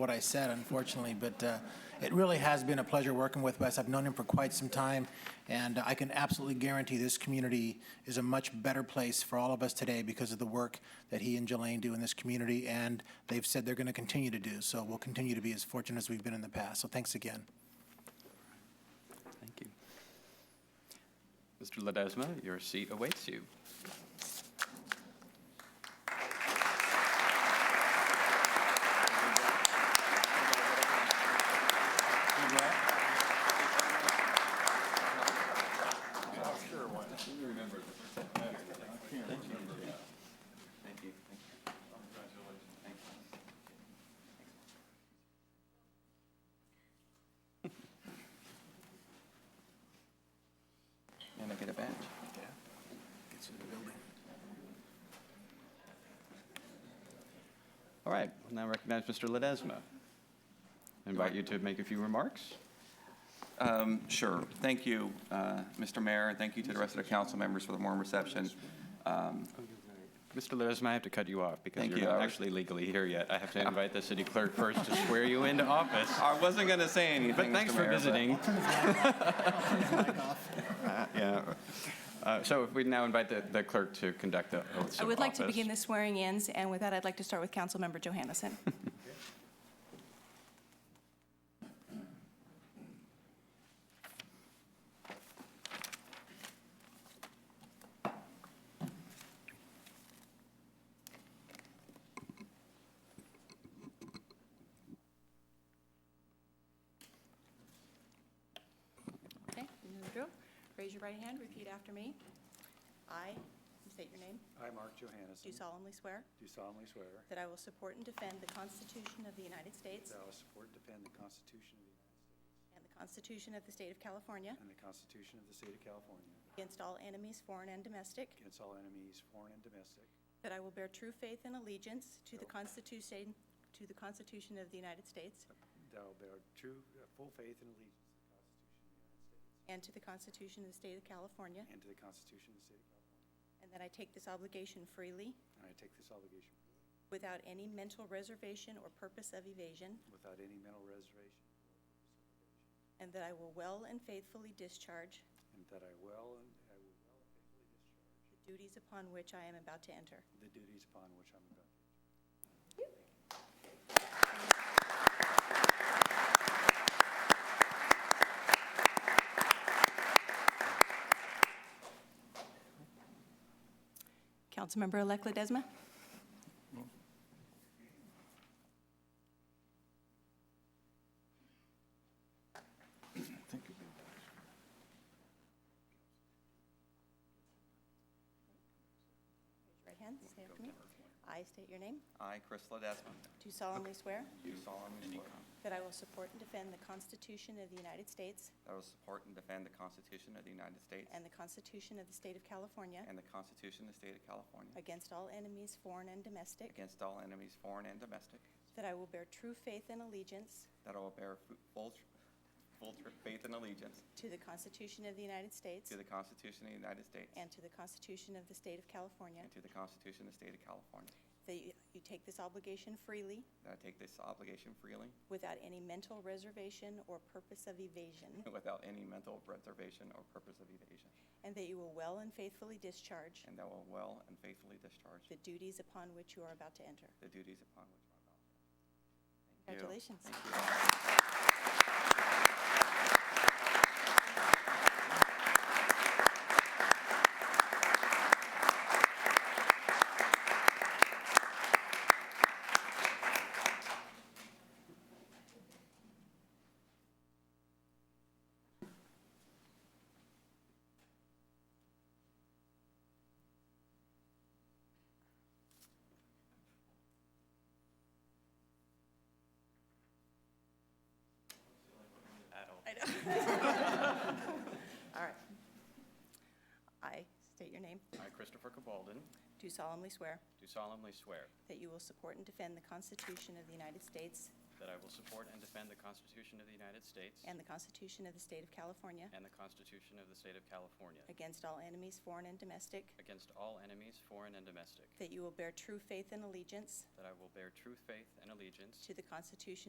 what I said, unfortunately, but uh, it really has been a pleasure working with Wes. I've known him for quite some time, and I can absolutely guarantee this community is a much better place for all of us today because of the work that he and Jelaine do in this community, and they've said they're going to continue to do, so we'll continue to be as fortunate as we've been in the past. So thanks again. Thank you. Mr. Ledesma, your seat awaits you. And I get a badge. All right, we'll now recognize Mr. Ledesma. Invite you to make a few remarks. Um, Sure. Thank you, uh, Mr. Mayor, and thank you to the rest of the council members for the warm reception. Um, Mr. Ledesma, I have to cut you off because Thank you're you. not actually legally here yet. I have to invite the city clerk first to swear you into office. I wasn't going to say anything, But thanks Mr. for Mayor, but- visiting. Uh, Yeah. Uh, So if we now invite the- the clerk to conduct the oaths of office. I would like to begin the swearing-ins, and with that, I'd like to start with Councilmember Johannesson. Okay, you know the drill. Raise your right hand, repeat after me. I, state your name, I, Mark Johannes, do solemnly swear do solemnly swear that I will support and defend the Constitution of the United States that I will support and defend the Constitution of the United States and the Constitution of the State of California and the Constitution of the State of California against all enemies, foreign and domestic, against all enemies, foreign and domestic, that I will bear true faith and allegiance to the Constitution, to the Constitution of the United States that I will bear true, uh, full faith and allegiance to the Constitution of the and to the Constitution of the United States State of California, and to the Constitution of the State of California, and that I take this obligation freely and I take this obligation freely, without any mental reservation or purpose of evasion, without any mental reservation or purpose of evasion, and that I will well and faithfully discharge and that I will, and I will well and faithfully discharge the duties upon which I am about to enter. the duties upon which I'm about to enter. Councilmember-elect Ledesma? Raise your Right hand, say after me. I state your name. I, Chris Ledesma, Do solemnly swear do solemnly swear that I will support and defend the Constitution of the United States that I will support and defend the Constitution of the United States and the Constitution of the State of California and the Constitution of the State of California against all enemies, foreign and domestic, against all enemies, foreign and domestic, that I will bear true faith and allegiance that I will bear fu- full tr- full tr- faith and allegiance To the Constitution of the United States. to the Constitution of the United States And to the Constitution of the State of California. and to the Constitution of the State of California, That you you take this obligation freely, that I take this obligation freely without any mental reservation or purpose of evasion. without any mental reservation or purpose of evasion, And that you will well and faithfully discharge and that I will well and faithfully discharge the duties upon which you are about to enter. the duties upon which I'm about to enter. Thank you. Congratulations. I know. All right. I state your name. I, Christopher Cabalden, Do solemnly swear do solemnly swear that you will support and defend the Constitution of the United States that I will support and defend the Constitution of the United States and the Constitution of the State of California. and the Constitution of the State of California Against all enemies, foreign and domestic. against all enemies, foreign and domestic, That you will bear true faith and allegiance that I will bear true faith and allegiance to the Constitution